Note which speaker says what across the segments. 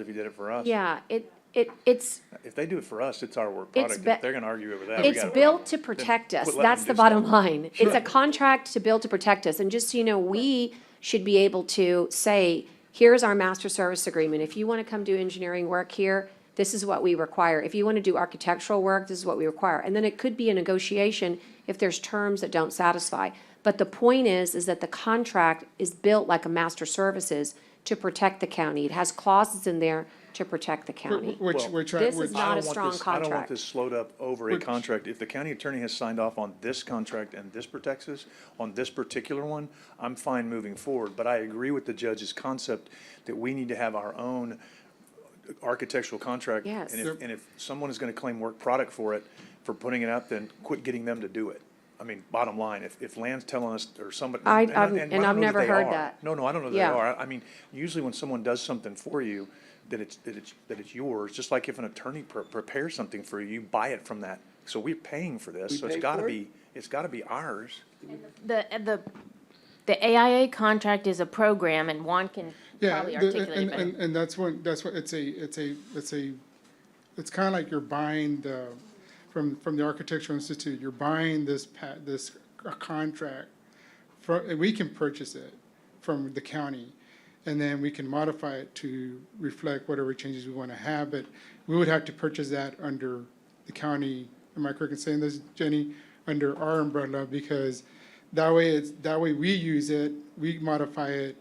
Speaker 1: if you did it for us.
Speaker 2: Yeah, it, it, it's,
Speaker 1: If they do it for us, it's our work
Speaker 2: It's
Speaker 1: product. If
Speaker 2: be-
Speaker 1: they're gonna argue over that, we
Speaker 2: it's
Speaker 1: got a
Speaker 2: built
Speaker 1: problem.
Speaker 2: to protect us.
Speaker 1: quit letting
Speaker 2: That's
Speaker 1: them
Speaker 2: the
Speaker 1: do stuff.
Speaker 2: bottom line. It's a
Speaker 1: Sure.
Speaker 2: contract to build to protect us. And just so you know, we should be able to say, here's our master service agreement. If you want to come do engineering work here, this is what we require. If you want to do architectural work, this is what we require. And then it could be a negotiation if there's terms that don't satisfy. But the point is, is that the contract is built like a master services to protect the county. It has clauses in there to protect the county.
Speaker 3: Which we're trying,
Speaker 2: This
Speaker 3: which,
Speaker 2: is
Speaker 1: I
Speaker 2: not a
Speaker 1: don't want
Speaker 2: strong
Speaker 1: this- I don't want
Speaker 2: contract.
Speaker 1: this slowed up over a
Speaker 3: Which-
Speaker 1: contract. If the county attorney has signed off on this contract and this protects us, on this particular one, I'm fine moving forward. But I agree with the judge's concept that we need to have our own architectural contract.
Speaker 2: Yes.
Speaker 1: And if, and if someone is gonna claim work product for it, for putting it up, then quit getting them to do it. I mean, bottom line, if, if land's telling us or somebody.
Speaker 2: I-
Speaker 1: and
Speaker 2: I'm- and
Speaker 1: I don't
Speaker 2: I've
Speaker 1: know
Speaker 2: never
Speaker 1: they
Speaker 2: heard
Speaker 1: are.
Speaker 2: that.
Speaker 1: No, no, I don't know that they
Speaker 2: Yeah.
Speaker 1: are. I- I mean, usually when someone does something for you, that it's, that it's, that it's yours, just like if an attorney pre- prepares something for you, you buy it from that. So we're paying for this, so it's
Speaker 4: pay
Speaker 1: gotta
Speaker 4: for it?
Speaker 1: be, it's gotta be ours.
Speaker 5: The, the, the AIA contract is a program, and Juan can
Speaker 3: yeah,
Speaker 5: probably
Speaker 3: the-
Speaker 5: articulate
Speaker 3: and,
Speaker 5: it better.
Speaker 3: and, and that's when, that's what, it's a, it's a, it's a, it's kind of like you're buying the, from, from the Architectural Institute, you're buying this pa, this contract from, and we can purchase it from the county. And then we can modify it to reflect whatever changes we want to have, but we would have to purchase that under the county. Am I correct in saying this, Jenny? Under our umbrella, because that way it's, that way we use it, we modify it,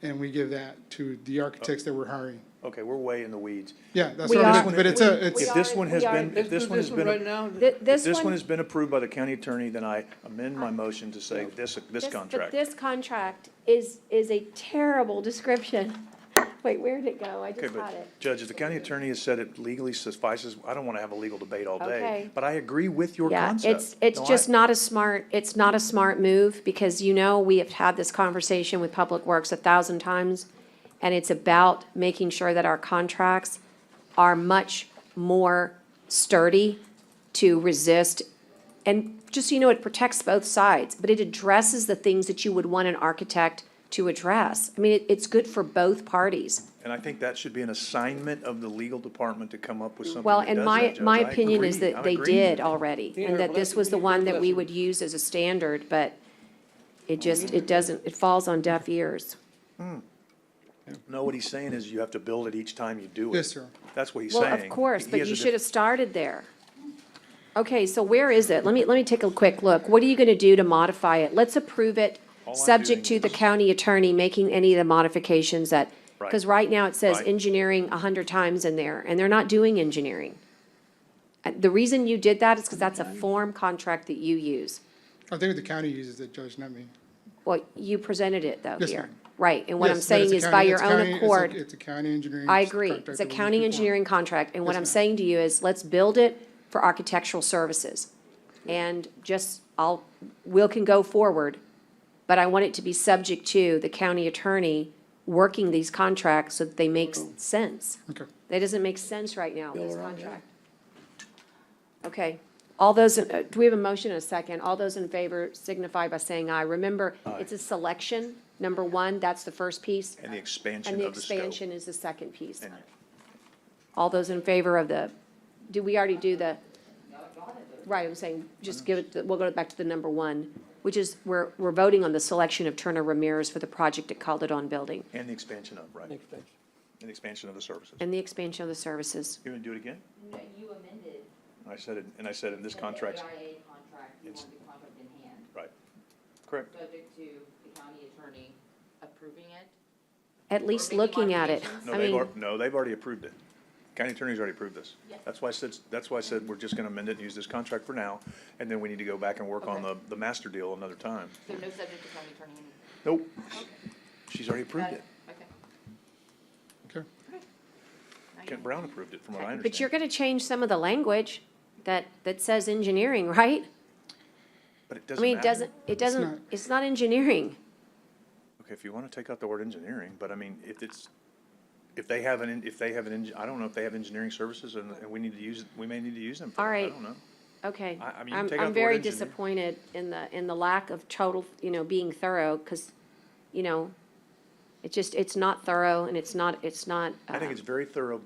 Speaker 3: and we give that to the architects that we're hiring.
Speaker 1: Okay, we're way in the weeds.
Speaker 3: Yeah, that's
Speaker 2: We
Speaker 3: what
Speaker 2: are-
Speaker 3: I'm, but it's a, it's.
Speaker 1: If this one has
Speaker 2: we are-
Speaker 1: been, if
Speaker 4: Let's
Speaker 1: this
Speaker 4: do
Speaker 1: one has been.
Speaker 4: Right now,
Speaker 2: Th-
Speaker 1: If
Speaker 2: This
Speaker 1: this one
Speaker 2: one,
Speaker 1: has been approved by the county attorney, then I amend my motion to say this, this
Speaker 2: This-
Speaker 1: contract.
Speaker 2: But this contract is, is a terrible description. Wait, where'd it go? I
Speaker 1: Okay,
Speaker 2: just had it.
Speaker 1: but Judge, if the county attorney has said it legally suffices, I don't wanna have a legal debate all day,
Speaker 2: Okay.
Speaker 1: but I agree with your
Speaker 2: Yeah,
Speaker 1: concept.
Speaker 2: it's, it's
Speaker 1: No, I-
Speaker 2: just not a smart, it's not a smart move, because you know, we have had this conversation with Public Works a thousand times, and it's about making sure that our contracts are much more sturdy to resist. And just so you know, it protects both sides, but it addresses the things that you would want an architect to address. I mean, it, it's good for both parties.
Speaker 1: And I think that should be an assignment of the legal department to come up with something
Speaker 2: Well,
Speaker 1: that does
Speaker 2: and
Speaker 1: that,
Speaker 2: my,
Speaker 1: Judge.
Speaker 2: my
Speaker 1: I
Speaker 2: opinion is
Speaker 1: agree.
Speaker 2: that
Speaker 1: I'm
Speaker 2: they
Speaker 1: agreeing.
Speaker 2: did already,
Speaker 4: Yeah,
Speaker 2: and that
Speaker 4: well,
Speaker 2: this
Speaker 4: that's
Speaker 2: was
Speaker 4: a
Speaker 2: the
Speaker 4: good
Speaker 2: one that we
Speaker 4: lesson.
Speaker 2: would use as a standard, but it just, it doesn't, it falls on deaf ears.
Speaker 1: No, what he's saying is you have to build it each time you do it.
Speaker 3: Yes, sir.
Speaker 1: That's what he's
Speaker 2: Well,
Speaker 1: saying.
Speaker 2: of course,
Speaker 1: He
Speaker 2: but
Speaker 1: has
Speaker 2: you
Speaker 1: a diff-
Speaker 2: should have started there. Okay, so where is it? Let me, let me take a quick look. What are you gonna do to modify it? Let's approve it,
Speaker 1: All I'm
Speaker 2: subject to
Speaker 1: doing
Speaker 2: the
Speaker 1: is-
Speaker 2: county attorney making any of the modifications that, because
Speaker 1: Right.
Speaker 2: right now it says
Speaker 1: Right.
Speaker 2: engineering a hundred times in there, and they're not doing engineering. Uh, The reason you did that is because that's a form contract that you use.
Speaker 3: I think the county uses it, Judge, not me.
Speaker 2: Well, you presented it though
Speaker 3: Yes,
Speaker 2: here.
Speaker 3: ma'am.
Speaker 2: Right, and what I'm
Speaker 3: Yes, but it's
Speaker 2: saying
Speaker 3: a
Speaker 2: is by
Speaker 3: county-
Speaker 2: your
Speaker 3: it's
Speaker 2: own
Speaker 3: county- it's a-
Speaker 2: accord,
Speaker 3: It's a county engineering.
Speaker 2: I agree, it's
Speaker 3: contract
Speaker 2: a
Speaker 3: that we
Speaker 2: county
Speaker 3: perform.
Speaker 2: engineering contract, and what
Speaker 3: Yes,
Speaker 2: I'm
Speaker 3: ma'am.
Speaker 2: saying to you is, let's build it for architectural services. And just, I'll, Will can go forward, but I want it to be subject to the county attorney working these contracts so that they make
Speaker 3: Oh.
Speaker 2: s- sense.
Speaker 3: Okay.
Speaker 2: That doesn't make sense right now,
Speaker 4: Yeah,
Speaker 2: this
Speaker 4: we're on, yeah.
Speaker 2: contract. Okay, all those, in- uh, do we have a motion and a second? All those in favor signify by saying aye. Remember, it's a selection, number one, that's the first piece,
Speaker 1: And the expansion
Speaker 2: and the
Speaker 1: of the scope.
Speaker 2: expansion is the second piece.
Speaker 1: And-
Speaker 2: All those in favor of the, do we already do the? Right, I'm saying, just give it, the- we'll go back to the number one, which is, we're, we're voting on the selection of Turner Ramirez for the project at Calderon Building
Speaker 1: And the expansion of, right, and
Speaker 4: Next page.
Speaker 1: the expansion of the services.
Speaker 2: and the expansion of the services.
Speaker 1: You gonna do it again?
Speaker 6: No, you amended.
Speaker 1: I said it, and I said in this
Speaker 6: the
Speaker 1: contract,
Speaker 6: AIA contract, you
Speaker 1: It's-
Speaker 6: wanted the contract in hand,
Speaker 1: right, correct.
Speaker 6: subject to the county attorney approving it.
Speaker 2: At least
Speaker 6: making
Speaker 2: looking at it.
Speaker 6: modifications?
Speaker 1: No,
Speaker 2: I
Speaker 1: they've,
Speaker 2: mean.
Speaker 1: al- no, they've already approved it. County attorney's already approved this. That's why I said, that's why I said we're just gonna amend it and use this contract for now, and then we need to go back and work on the,
Speaker 6: Okay.
Speaker 1: the master deal another time.
Speaker 6: So no subject to county attorney. in-
Speaker 1: Nope, she's already approved
Speaker 6: Got
Speaker 1: it.
Speaker 6: it. Okay.
Speaker 3: Okay.
Speaker 6: Now you
Speaker 1: Kent Brown approved it, from what I understand.
Speaker 2: But you're gonna change some of the language that, that says engineering, right?
Speaker 1: But it
Speaker 2: I
Speaker 1: doesn't
Speaker 2: mean, it
Speaker 1: matter.
Speaker 2: doesn't, it
Speaker 3: not.
Speaker 2: doesn't, it's not engineering.
Speaker 1: Okay, if you wanna take out the word engineering, but I mean, if it's, if they have an, en- if they have an, eng- I don't know if they have engineering services, and, and we need to use, we may need to use them for
Speaker 2: All
Speaker 1: that, I
Speaker 2: right.
Speaker 1: don't know.
Speaker 2: Okay.
Speaker 1: I- I mean, you
Speaker 2: I'm-
Speaker 1: take out the
Speaker 2: I'm
Speaker 1: word
Speaker 2: very
Speaker 1: engineer.
Speaker 2: disappointed in the, in the lack of total, you know, being thorough, because, you know,
Speaker 7: It just, it's not thorough and it's not, it's not.
Speaker 2: I think
Speaker 7: um,
Speaker 2: uh, it's very thorough,